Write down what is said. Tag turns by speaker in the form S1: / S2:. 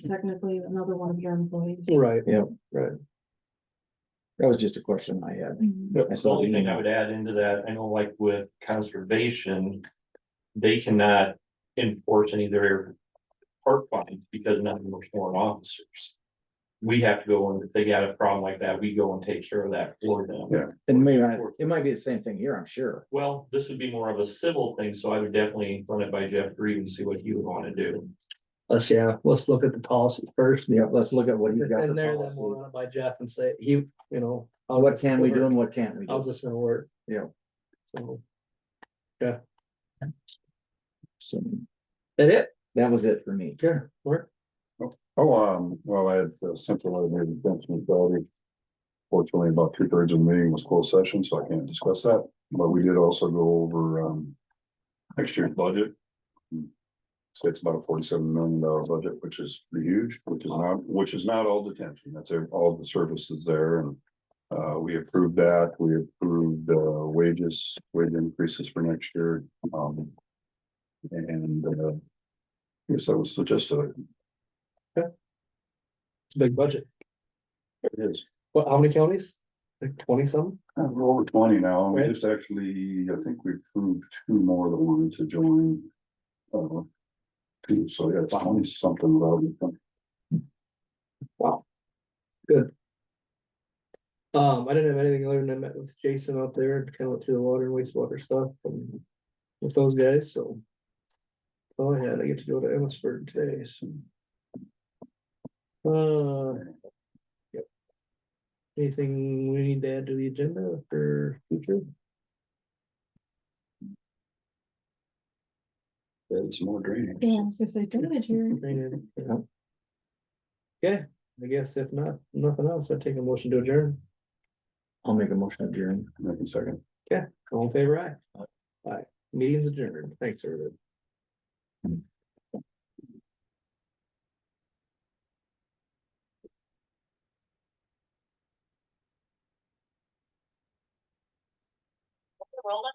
S1: technically another one of your employees.
S2: Right.
S3: Yeah, right. That was just a question I had. I
S4: The
S3: saw
S4: only
S3: the
S4: thing I
S3: email.
S4: would add into that, I know like with conservation, they cannot enforce any of their park fines because none of them are sworn officers. We have to go and if they got a problem like that, we go and take care of that for them.
S3: Yeah. And maybe, I- it might be the same thing here, I'm sure.
S4: Well, this would be more of a civil thing, so I would definitely run it by Jeff Green and see what he would want to do.
S2: Let's, yeah, let's look at the policy first.
S3: Yeah, let's look at what you
S2: If
S3: got
S2: in
S3: for
S2: there, then we'll
S3: policy. Uh,
S2: run it by Jeff and say, he, you know. how-
S3: What can we do and what can't we
S2: How's
S3: do?
S2: this gonna work?
S3: Yeah.
S2: So,
S3: So,
S2: That it?
S3: That was it for me.
S2: Yeah. Work.
S5: Oh, um, well, I had uh, central elevated defense municipality. Fortunately, about two thirds of the meeting was closed session, so I can't discuss that, but we did also go over, um. Next year's budget. So it's about a forty-seven million dollar budget, which is huge, which is not, which is not all detention, that's ev- all the services there and. Uh, we approved that, we approved, uh, wages, wage increases for next year, um. And, uh. I guess that was just a,
S2: It's a big budget.
S5: it is.
S2: What, how many counties? Like twenty some?
S5: Uh, We're over twenty now, and we
S2: Right.
S5: just actually, I think we approved two more that wanted to join. uh, Two, so yeah, it's twenty something about it.
S2: Um, I didn't have anything other than I met with Jason out there and kind of went through the water and wastewater stuff and. With those guys, so. Oh, yeah, I get to go to Emmitsburg today, so. Uh. Yep. Anything we need to add to the agenda for future?
S5: It's more draining.
S1: Yeah, I was gonna say, drainage here.
S2: Drainage, yeah. Okay, I guess if not, nothing else, I'd take a motion to adjourn.
S3: I'll make a motion adjourned.
S5: Wait a second.
S2: All in favor, aye? Aye. Meeting's adjourned. Thanks, everybody.